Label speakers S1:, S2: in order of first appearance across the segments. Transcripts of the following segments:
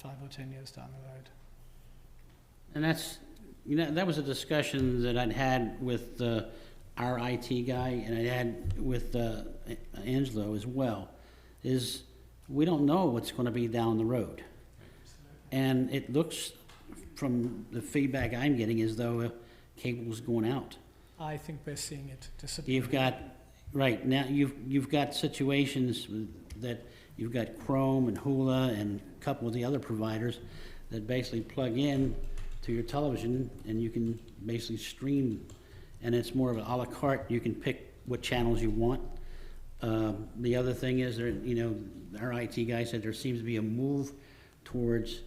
S1: five or 10 years down the road.
S2: And that's, you know, that was a discussion that I'd had with uh, our IT guy and I had with uh, Angelo as well, is we don't know what's going to be down the road. And it looks, from the feedback I'm getting, as though uh, cable's going out.
S1: I think we're seeing it disappear.
S2: You've got, right, now, you've, you've got situations that, you've got Chrome and Hula and a couple of the other providers that basically plug in to your television and you can basically stream, and it's more of an à la carte, you can pick what channels you want. Um, The other thing is, there, you know, our IT guy said there seems to be a move towards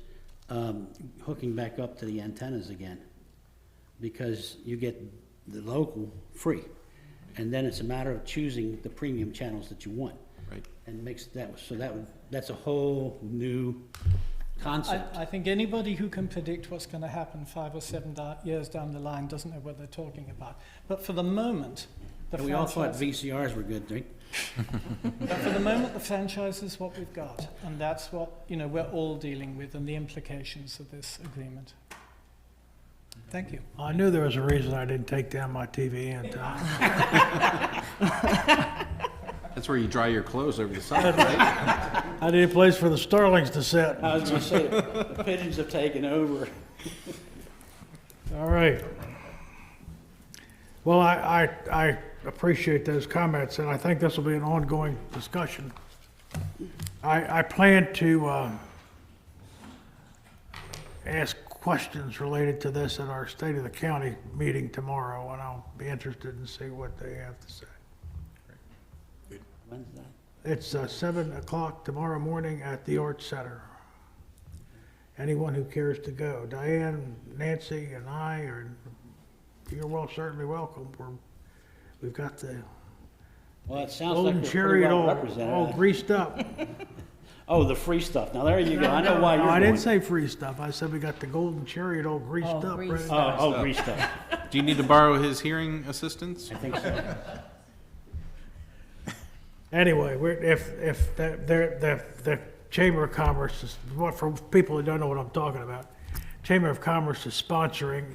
S2: um, hooking back up to the antennas again, because you get the local free, and then it's a matter of choosing the premium channels that you want.
S3: Right.
S2: And makes that, so that, would that's a whole new
S1: I,
S2: concept.
S1: I think anybody who can predict what's going to happen five or seven da- years down the line doesn't know what they're talking about. But for the moment, the
S2: And we all thought
S1: franchise,
S2: VCRs were good, right?
S1: but for the moment, the franchise is what we've got, and that's what you know we're all dealing with, and the implications of this agreement. Thank you.
S4: I knew there was a reason I didn't take down my TV antenna.
S3: That's where you dry your clothes over the summer, right?
S4: I need a place for the starlings to sit.
S2: I was gonna say, the pigeons have taken over.
S4: All right. Well, I, I, I appreciate those comments, and I think this will be an ongoing discussion. I, I plan to, uh, ask questions related to this at our State of the County meeting tomorrow, and I'll be interested in see what they have to say.
S2: When's that?
S4: It's uh, seven o'clock tomorrow morning at the Arts Center. Anyone who cares to go, Diane, Nancy, and I are, you're well, certainly welcome. We're, we've got the
S2: Well, it sounds like
S4: golden
S2: we're pretty
S4: chariot
S2: well
S4: all, all
S2: represented.
S4: greased up.
S2: Oh, the free stuff. Now, there you go. I know why
S4: No, I
S2: you're
S4: didn't
S2: going.
S4: say free stuff. I said we got the golden chariot all greased
S1: Oh,
S4: up.
S5: greased
S4: right?
S2: Oh, oh, free stuff.
S3: Do you need to borrow his hearing assistance?
S2: I think so.
S4: Anyway, we're, if, if, the, the, the, the Chamber of Commerce is, what, for people that don't know what I'm talking about, Chamber of Commerce is sponsoring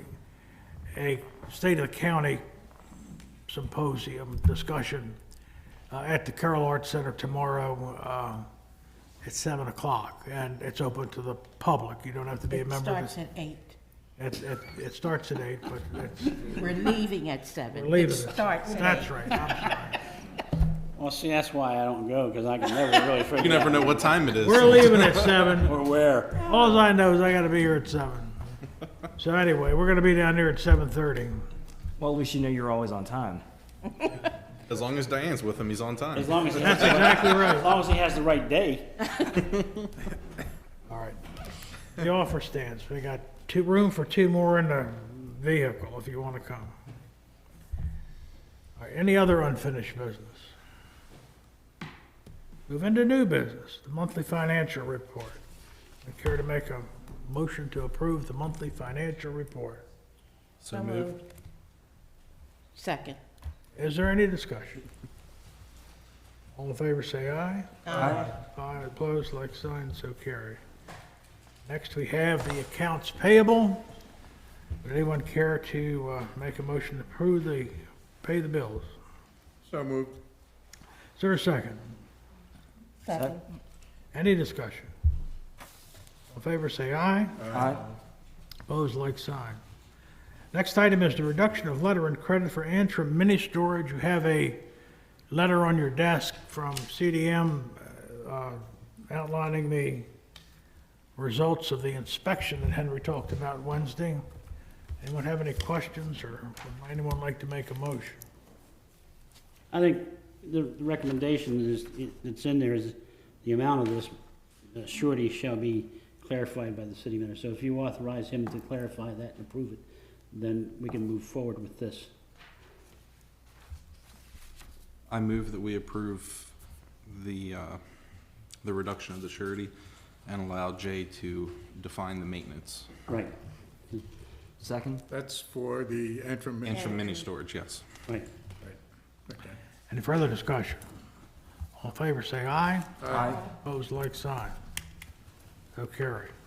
S4: a state of the county symposium discussion uh, at the Carroll Arts Center tomorrow, uh, at seven o'clock, and it's open to the public, you don't have to be a
S5: It
S4: member of
S5: starts
S4: the.
S5: at eight.
S4: It, it, it starts at eight, but it's,
S5: We're leaving at seven.
S4: we're leaving
S5: It
S4: it.
S5: starts at
S4: That's
S5: eight.
S4: right, I'm sorry.
S2: Well, see, that's why I don't go, because I can never really
S3: You
S2: figure
S3: never
S2: out
S3: know what time it is.
S4: We're leaving at seven.
S2: or where.
S4: All I know is I gotta be here at seven. So anyway, we're gonna be down there at seven thirty.
S6: Well, we should know you're always on time.
S3: As long as Diane's with him, he's on time.
S2: As long as, he has
S4: That's
S2: the right-
S4: exactly
S2: as
S4: right.
S2: long as he has the right day.
S4: All right. The offer stands. We got two, room for two more in the vehicle if you wanna come. All right, any other unfinished business? Move into new business, the monthly financial report. I care to make a motion to approve the monthly financial report.
S3: So moved.
S5: Second.
S4: Is there any discussion? All in favor, say aye.
S5: Aye.
S4: Aye, opposed, like sign, so carry. Next, we have the accounts payable. Would anyone care to uh, make a motion to approve the, pay the bills?
S3: So moved.
S4: Is there a second?
S5: Second.
S4: Any discussion? All in favor, say aye.
S6: Aye.
S4: Opposed, like sign. Next item is the reduction of letter and credit for Antrim mini storage. You have a letter on your desk from CDM uh, outlining the results of the inspection that Henry talked about Wednesday. Anyone have any questions, or would anyone like to make a motion?
S2: I think the the recommendation is, that's in there is the amount of this uh, surety shall be clarified by the city manager. So if you authorize him to clarify that and approve it, then we can move forward with this.
S3: I move that we approve the, uh, the reduction of the surety and allow Jay to define the maintenance.
S2: Right,
S6: Second?
S7: That's for the interim.
S3: And for mini storage, yes.
S2: right.
S4: Any further discussion? All in favor, say aye.
S6: Aye.
S4: Opposed, like sign. So carried.